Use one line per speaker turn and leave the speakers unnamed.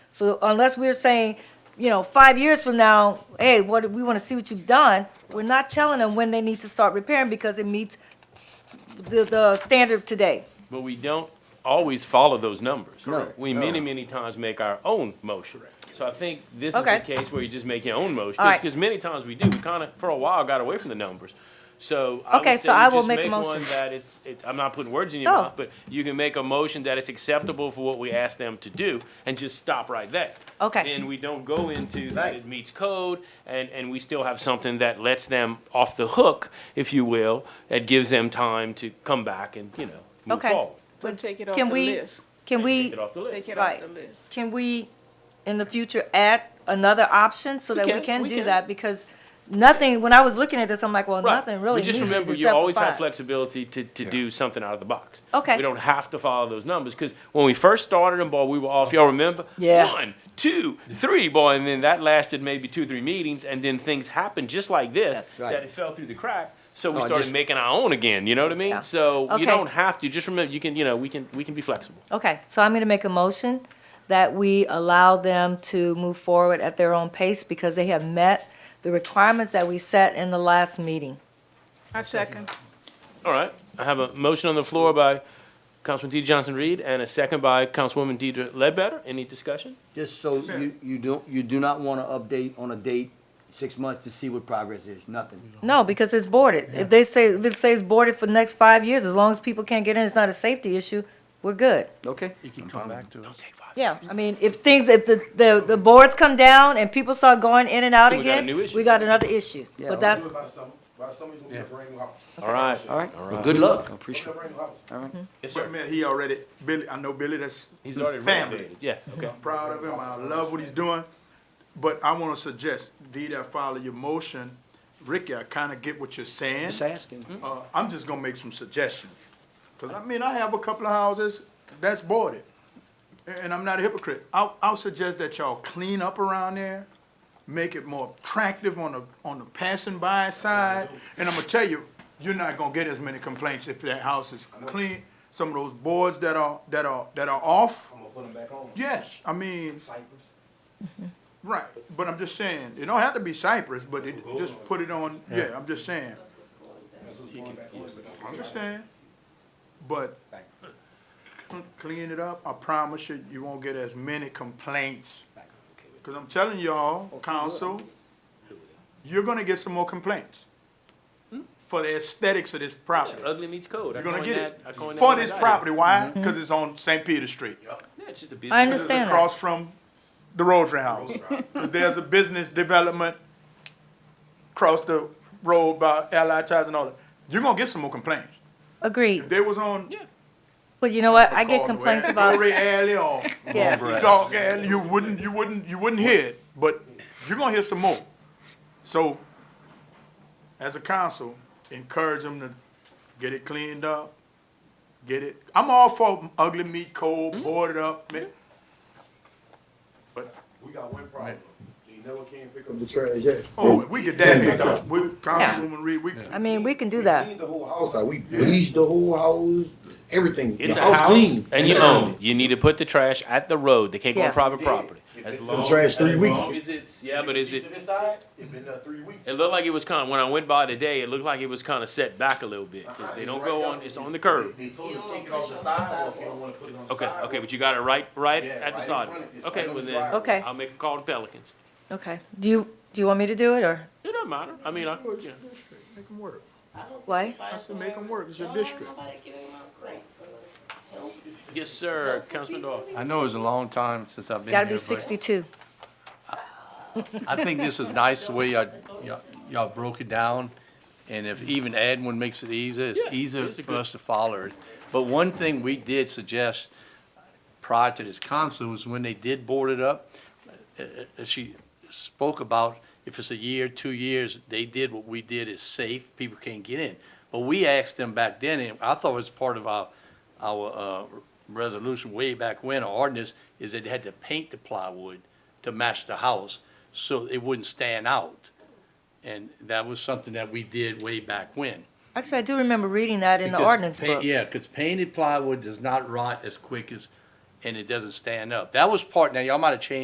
So unless we're saying, you know, five years from now, hey, what, we wanna see what you've done, we're not telling them when they need to start repairing because it meets the, the standard today.
But we don't always follow those numbers.
Correct.
We many, many times make our own motion. So I think this is
Okay.
the case where you just make your own motion,
All right.
because many times we do, we kind of, for a while, got away from the numbers. So I would
Okay,
say
so
we
I will
just
make a motion. Oh.
one that it's, it- I'm not putting words in your
No.
mouth, but you can make a motion that it's acceptable for what we ask them to do, and just stop right there.
Okay.
Then we don't go into that
Right.
it meets code, and, and we still have something that lets them off the hook, if you will, that gives them time to come back and, you know, move
Okay.
forward.
So take it off the
Can we,
list.
can we,
Take it off the list.
Take it
Right.
off the list.
can we, in the future, add another option so that we
can,
can
we
do
can.
that? Because nothing, when I was looking at this, I'm like, well,
Right.
nothing really
But
needs
just remember, you
except for
always have
five.
flexibility to, to do something out of the box.
Okay.
We don't have to follow those numbers, because when we first started them, boy, we were off, y'all remember?
Yeah.
One, two, three, boy, and then that lasted maybe two, three meetings, and then things happened just like this,
Yes.
Right.
that it fell through the crack, so we
No, I
started
just-
making our own again, you know what I
Oh, Yeah.
mean? So
Okay.
you don't have to, just remember, you can, you know, we can, we can be flexible.
Okay, so I'm gonna make a motion that we allow them to move forward at their own pace because they have met the requirements that we set in the last meeting.
I second.
All right, I have a motion on the floor by Councilman D. Johnson Reed, and a second by Councilwoman Deidre Ledbetter. Any discussion?
Just so you, you don't, you do not wanna update on a date, six months to see what progress is, nothing.
No, because it's boarded. If they say, if it says boarded for the next five years, as long as people can't get in, it's not a safety issue, we're good.
Okay?
Don't take five.
Yeah, I mean, if things, if the, the, the boards come down and people start going in and out
We got a
again,
new issue.
we got another issue.
Yeah,
But
we
that's,
Do it by summer, by summer you're gonna bring out.
All right.
All right, well, good luck, I
You're
appreciate
gonna
it.
bring out.
Yes,
Wait a
sir.
minute, he already, Billy, I know Billy, that's
He's already
family.
renovated. Yeah, okay.
I'm proud of him, I love what he's doing, but I wanna suggest, Dee, I follow your motion. Ricky, I kinda get what you're saying.
Just asking.
Uh, I'm just gonna make some suggestions. Cause I mean, I have a couple of houses that's boarded, a- and I'm not a hypocrite. I'll, I'll suggest that y'all clean up around there, make it more attractive on the, on the passing by side. And I'm gonna tell you, you're not gonna get as many complaints if that house is clean. Some of those boards that are, that are, that are off,
I'm gonna put them back on.
yes, I mean,
Cypress.
right. But I'm just saying, it don't have to be Cypress, but it, just put it on, yeah, I'm just saying.
That's what's going back on.
I understand, but clean it up, I promise you, you won't get as many complaints. Cause I'm telling y'all, council, you're gonna get some more complaints for the aesthetics of this property.
Ugly meets code.
You're gonna get it
I coined
for
that
this
as I did.
property, why? Cause it's on St. Peter Street.
Yeah, it's just a
I
business.
This is
understand that.
across from the Rotary House. Cause there's a business development across the road by Allied Tires and all that. You're gonna get some more complaints. If
Agreed.
they was on
But you know what? I get
Caldwell,
complaints about,
Glory Alley or
yeah,
Dog Alley, you wouldn't, you wouldn't, you wouldn't hear it, but you're gonna hear some more. So, as a council, encourage them to get it cleaned up, get it, I'm all for ugly meat,
Mm-hmm.
cold, boarded up, man. But,
We got one problem. They never can pick up the trash yet.
oh, we get that picked up, we, Councilwoman Reed, we,
I mean, we can do that.
Cleaned the whole house out. We bleached the whole house, everything.
It's
The
a
house
house
clean.
and you own it. You need to put the trash at the road. They can't go on
Yeah.
private property.
If
As
it's
long-
the trash three
as
weeks.
long as it's- Yeah, but is
See
it,
To this side, it been there three weeks.
it looked like it was kind of, when I went by today, it looked like it was kind of set back a little bit. Cause they don't go on, it's on the curb.
They told us take it off the sidewalk. You don't wanna put it on the
Okay,
sidewalk.
okay, but you got it right, right
Yeah,
at the
right in
side.
front of you. It's
Okay,
right on
well
the
then,
driveway.
Okay.
I'll make a call to Pelicans.
Okay. Do you, do you want me to do it or
It doesn't matter. I mean, I, you know.
make them work,
what?
I said make them work, it's your district.
yes, sir, Councilman Doyle.
I know it's a long time since I've been
Gotta be
here, but
sixty-two.
I think this is nice the way y'all, y'all- y'all broke it down. And if even adding one makes it easier, it's
Yeah,
easier
it's a
for
good-
us to follow it. But one thing we did suggest prior to this council was when they did board it up, uh, uh, she spoke about if it's a year, two years, they did what we did is safe, people can't get in. But we asked them back then, and I thought it was part of our, our, uh, resolution way back when, our ordinance, is that they had to paint the plywood to match the house, so it wouldn't stand out. And that was something that we did way back when.
Actually, I do remember reading that in the
Because
ordinance
paint-
book.
Yeah, because painted plywood does not rot as quick as, and it doesn't stand up. That was part, now y'all might have changed